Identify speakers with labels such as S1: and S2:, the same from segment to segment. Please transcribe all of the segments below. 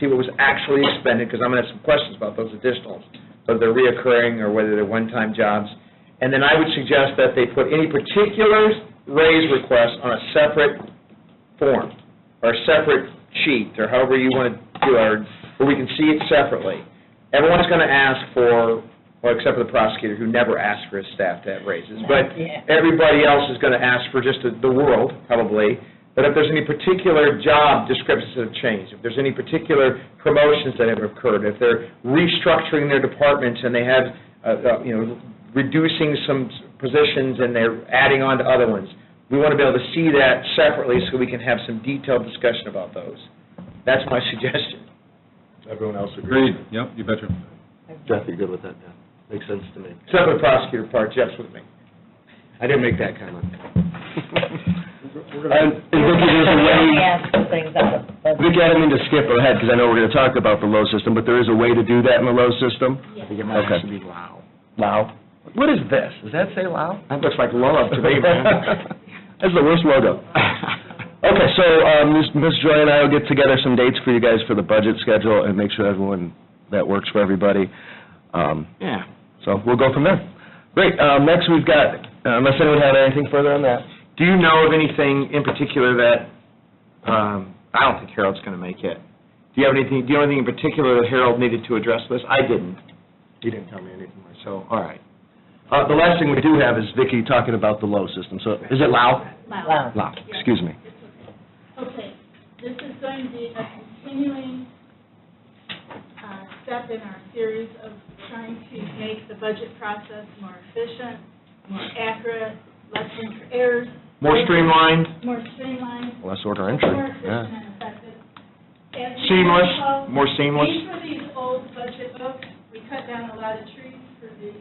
S1: see what was actually expended, because I'm going to have some questions about those additionals, whether they're reoccurring or whether they're one-time jobs. And then I would suggest that they put any particular raise request on a separate form, or a separate sheet, or however you want to do it, where we can see it separately. Everyone's going to ask for, well, except for the prosecutor, who never asks for his staff to have raises, but
S2: Yeah.
S1: everybody else is going to ask for just the the world, probably, but if there's any particular job descriptions that have changed, if there's any particular promotions that have occurred, if they're restructuring their departments and they have, uh, uh, you know, reducing some s- positions and they're adding on to other ones, we want to be able to see that separately so we can have some detailed discussion about those. That's my suggestion.
S3: Everyone else agrees?
S4: Agreed, yep, you betcha.
S3: Jeff, you good with that, yeah? Makes sense to me.
S1: Except for the prosecutor part, Jeff's with me. I didn't make that comment.
S5: And and Vicki, there's a way,
S2: Ask some things out of budget.
S5: Vicki, I don't mean to skip ahead, because I know we're going to talk about the low system, but there is a way to do that in the low system?
S3: It
S5: might actually
S3: be loud.
S5: Lao? What is this? Does that say Lao?
S1: That looks like love to me, man.
S5: That's the worst logo. Okay, so um, Ms. Ms. Joy and I will get together some dates for you guys for the budget schedule and make sure everyone, that works for everybody. Um,
S3: Yeah.
S5: So we'll go from there. Great, um, next we've got, unless anyone had anything further on that?
S1: Do you know of anything in particular that, um, I don't think Harold's going to make it. Do you have anything, do you know anything in particular that Harold needed to address this? I didn't. He didn't tell me anything, so, all right.
S5: Uh, The last thing we do have is Vicki talking about the low system, so is it Lao?
S2: Wow.
S5: Lao, excuse me.
S6: Oh, Okay, this is going to be a continuing uh, step in our series of trying to make the budget process more efficient, more accurate, less room for errors.
S1: More streamlined?
S6: More streamlined,
S5: Less order entry,
S6: more
S5: yeah.
S6: efficient and effective. As you
S1: Seamless,
S6: recall,
S1: more seamless?
S6: These were these old budget books, we cut down a lot of trees for these.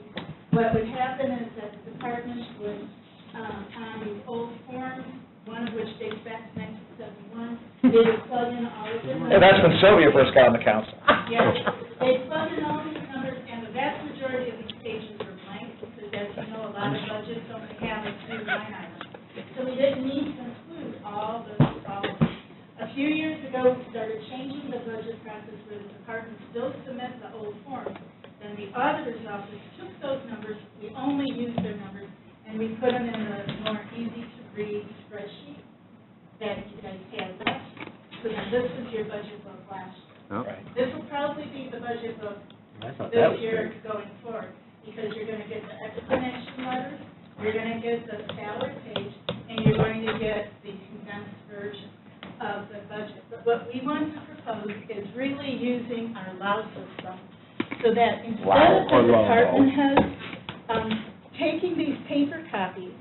S6: What would happen is that the departments would, um, on these old forms, one of which dates back to nineteen seventy-one, they would plug in all of them.
S1: That's when Sylvia first got on the council.
S6: Yes, they plug in all these numbers, and the vast majority of these pages are blank, because as you know, a lot of budgets don't have a few line item. So we didn't need to include all those problems. A few years ago, we started changing the budget practice where the departments still submit the old forms. Then the auditor's office took those numbers, we only used their numbers, and we put them in the more easy-to-read spreadsheet that you guys had left. So then this was your budget book last year. This will probably be the budget book
S3: I thought that was
S6: this year
S3: big.
S6: going forward, because you're gonna get the explanation letters, you're gonna get the salary page, and you're going to get the condensed version of the budget. But what we want to propose is really using our LOW system, so that instead of the department heads, um, taking these paper copies,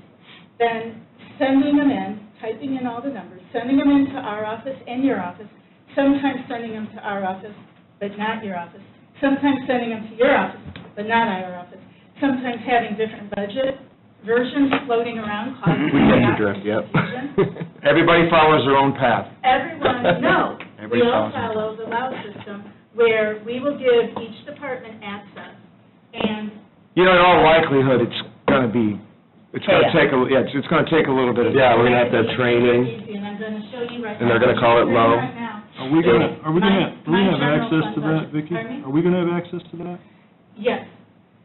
S6: then sending them in, typing in all the numbers, sending them into our office and your office, sometimes sending them to our office, but not your office, sometimes sending them to your office, but not our office, sometimes having different budget versions floating around causing
S1: We get the
S6: chaos
S1: drift,
S6: and
S1: yep.
S6: confusion.
S1: Everybody follows their own path.
S6: Everyone, no, we
S1: Everybody
S6: all
S1: follows it.
S6: follow the LOW system, where we will give each department access, and
S1: You know, in all likelihood, it's going to be, it's going to take,
S2: Chaos.
S1: a yeah, it's- it's going to take a little bit of.
S5: Yeah, we're going to have to have training.
S6: Easy, And I'm gonna show you right now.
S5: And they're gonna call it
S6: Right
S5: low.
S6: now.
S4: Are we gonna, are we gonna, do we
S6: My-
S4: have
S6: my
S4: access to
S6: general
S4: that,
S6: fund budget.
S4: Vicki?
S6: Pardon me?
S4: Are we gonna have access to that?
S6: Yes.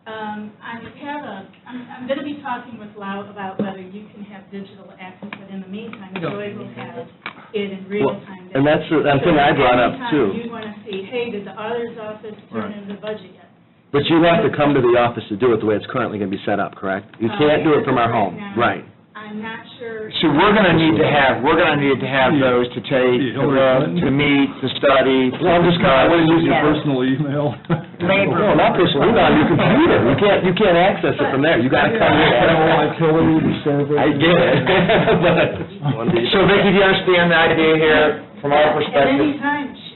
S6: Um, I have a, I'm, I'm gonna be talking with Lau about whether you can have digital access, but in the meantime, Joy will have it in real
S5: Well,
S6: time.
S5: And that's the the thing I brought up,
S6: So anytime
S5: too.
S6: you wanna see, hey, did the auditor's office turn in the budget yet?
S5: But you have to come to the office to do it the way it's currently going to be set up, correct? You
S6: Oh,
S5: can't do it from our home, right?
S6: Um, I'm not sure.
S1: So we're going to need to have, we're going to need to have those to take, uh,
S4: Yeah, Hillary Clinton.
S1: to meet, to study.
S5: Well, I'm just kinda- what is
S4: Use your
S2: Yeah.
S4: personal email.
S2: Labor.
S5: No, not this, we're on your computer. You can't, you can't access it from there. You got to come in.
S3: I don't like Hillary to serve it.
S5: I get it. But-
S1: So Vicki, do you understand the idea here from our
S6: At
S1: perspective?
S6: any time, sh-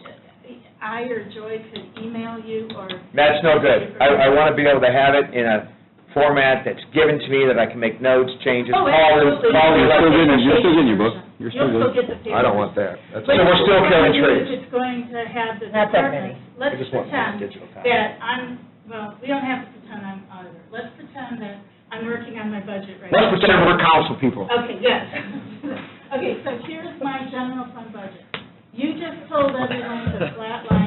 S6: I or Joy could email you or.
S1: That's no good. I, I want to be able to have it in a format that's given to me, that I can make notes, changes,
S6: Oh,
S1: call the,
S6: absolutely.
S1: call the
S6: You're still
S1: elected
S6: getting- you're
S1: officials.
S6: still getting your book. You're still You'll still get the paper.
S3: I don't want that. That's-
S1: So we're still killing
S6: But
S1: trees.
S6: It's going to have the
S2: Not that many.
S6: departments, let's
S1: I just want
S6: pretend
S1: digital copy.
S6: that I'm, well, we don't have to pretend I'm auditor. Let's pretend that I'm working on my budget right
S1: Let's
S6: now.
S1: pretend we're council people.
S6: Okay, yes. Okay, so here's my general fund budget. You just told everyone the flat line